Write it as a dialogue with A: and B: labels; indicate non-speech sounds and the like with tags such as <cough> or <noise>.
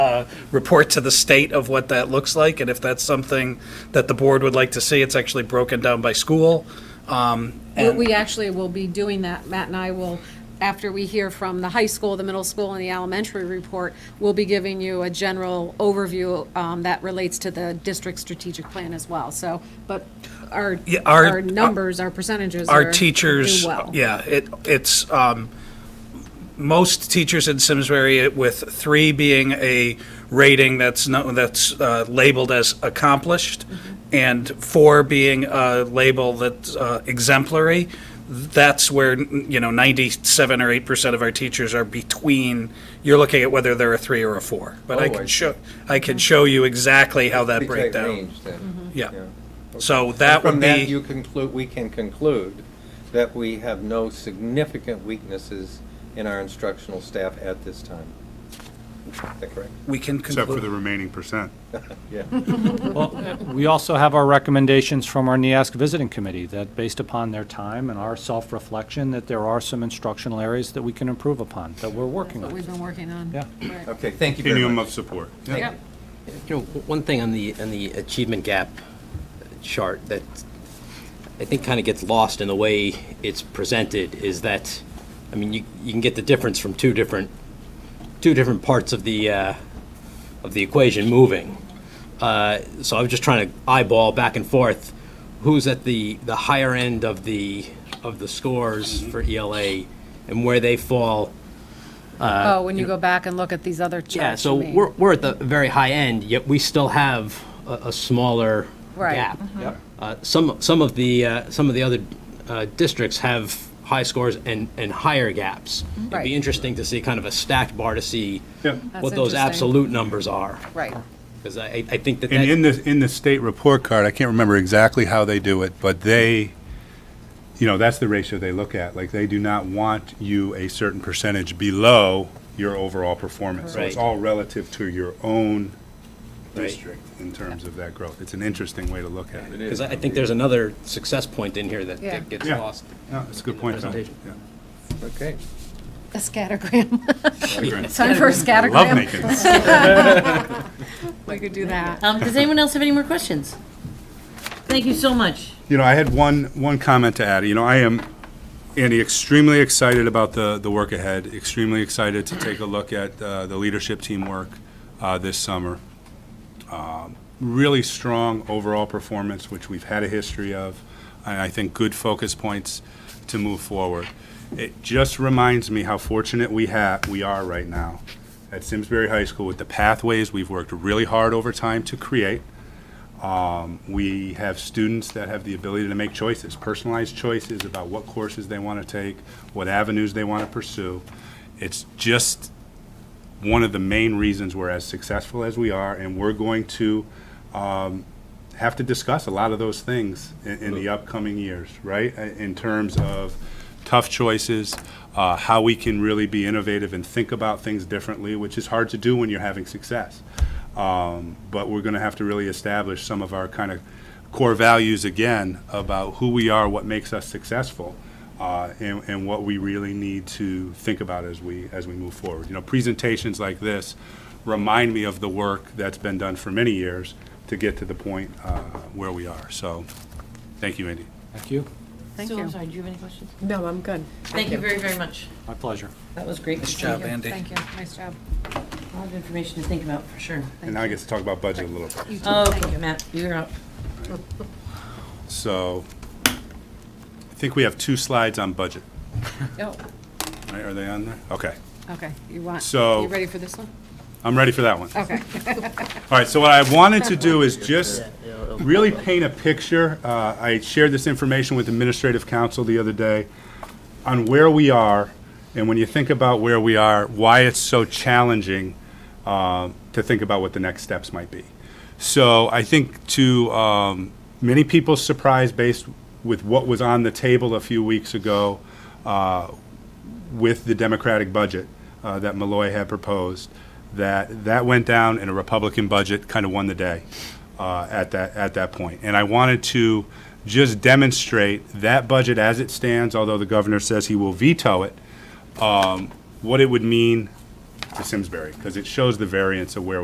A: uh, report to the state of what that looks like, and if that's something that the board would like to see, it's actually broken down by school. Um,
B: We-
A: and-
B: We actually will be doing that. Matt and I will, after we hear from the high school, the middle school, and the elementary report, we'll be giving you a general overview um, that relates to the district strategic plan as well. So, but our,
A: Yeah, our-
B: our numbers, our percentages are.
A: our teachers, uh,
B: do well.
A: yeah, it, it's, um, most teachers in Simsbury it- with three being a rating that's no, that's, uh, labeled as accomplished
B: Mm-hmm.
A: and four being a label that's, uh, exemplary, that's where, you know, ninety-seven or eight percent of our teachers are between, you're looking at whether they're a three or a four. But
C: Oh,
A: I
C: I
A: can
C: see.
A: show, I can show you exactly how that
C: Pretty tight
A: breakdown.
C: range then.
A: Yeah.
C: Yeah.
A: So that would
C: From
A: be.
C: that, you conclude, we can conclude that we have no significant weaknesses in our instructional staff at this time. Is that correct?
A: we can conclude.
D: except for the remaining percent.
C: Yeah.
E: Well, we also have our recommendations from our NIASC Visiting Committee that, based upon their time and our self-reflection, that there are some instructional areas that we can improve upon, that we're working
B: What
E: on.
B: we've been working on.
E: Yeah.
B: Right.
C: Okay, thank you very
D: Continuum of
C: much.
D: support.
B: Yep.
F: You know, w- one thing on the, on the achievement gap chart that I think kind of gets lost in the way it's presented is that, I mean, you, you can get the difference from two different, two different parts of the, uh, of the equation moving. Uh, So I was just trying to eyeball back and forth, who's at the, the higher end of the, of the scores for ELA and where they fall
B: Oh, when you go back and look at these other charts.
F: Uh, yeah, so
B: you mean.
F: we're, we're at the very high end, yet we still have a, a smaller
B: Right. Mm-hmm.
F: gap.
E: Yep.
F: Uh, some, some of the, uh, some of the other uh, districts have high scores and, and higher gaps. It'd
B: Mm-hmm. Right.
F: be interesting to see kind of a stacked bar to see
D: Yeah.
F: what those
B: interesting.
F: absolute numbers are.
B: Right.
F: Because I, I- I think that
D: And in
F: that,
D: the, in the state report card, I can't remember exactly how they do it, but they, you know, that's the ratio they look at. Like, they do not want you a certain percentage below your overall performance. So it's
F: Right.
D: all relative to your own
F: Right.
D: district in terms of that growth. It's an interesting way to look at it.
F: because I I think there's another success point in here that
B: Yeah.
F: that gets
D: Yeah.
F: lost.
D: No, it's a good point, Tom.
F: presentation.
D: Yeah.
C: Okay.
B: A
F: <laughs>
B: scattergram.
D: Congrats.
B: Time for a
D: I Love
B: scattergram.
D: making.
B: We could do that.
G: Um, does anyone else have any more questions? Thank you so much.
D: You know, I had one, one comment to add. You know, I am, Andy, extremely excited about the, the work ahead, extremely excited to take a look at uh, the leadership team work uh, this summer. Um, Really strong overall performance, which we've had a history of, and I think good focus points to move forward. It just reminds me how fortunate we have, we are right now at Simsbury High School with the pathways we've worked really hard over time to create. We have students that have the ability to make choices, personalized choices about what courses they want to take, what avenues they want to pursue. It's just one of the main reasons we're as successful as we are, and we're going to um, have to discuss a lot of those things in, in the upcoming years, right? I- In terms of tough choices, uh, how we can really be innovative and think about things differently, which is hard to do when you're having success. Um, but we're going to have to really establish some of our kind of core values again about who we are, what makes us successful, uh, and, and what we really need to think about as we as we move forward. You know, presentations like this remind me of the work that's been done for many years to get to the point uh, where we are. So, thank you, Andy.
E: Thank you.
B: Thank
G: Sue,
B: you.
G: I'm sorry, do you have any questions?
H: No, I'm good.
G: Thank you very, very much.
E: My pleasure.
G: That was great.
A: Nice job, Andy.
B: Thank you. Nice job.
G: A lot of information to think about, for sure.
D: And now I get to talk about budget a little. bit.
G: Okay, Oh, Matt, you're up.
D: So, I think we have two slides on budget.
B: Oh,
D: Right? Are they on there? Okay,
B: Okay, you want,
D: So-
B: you ready for this one?
D: I'm ready for that one.
B: Okay.
D: All right, so what I wanted to do is just really paint a picture. Uh, I shared this information with Administrative Council the other day on where we are, and when you think about where we are, why it's so challenging uh, to think about what the next steps might be. So I think to um, many people's surprise, based with what was on the table a few weeks ago, uh, with the Democratic budget uh, that Malloy had proposed, that that went down and a Republican budget kind of won the day uh, at that at that point. And I wanted to just demonstrate that budget as it stands, although the governor says he will veto it, um, what it would mean to Simsbury, because it shows the variance of where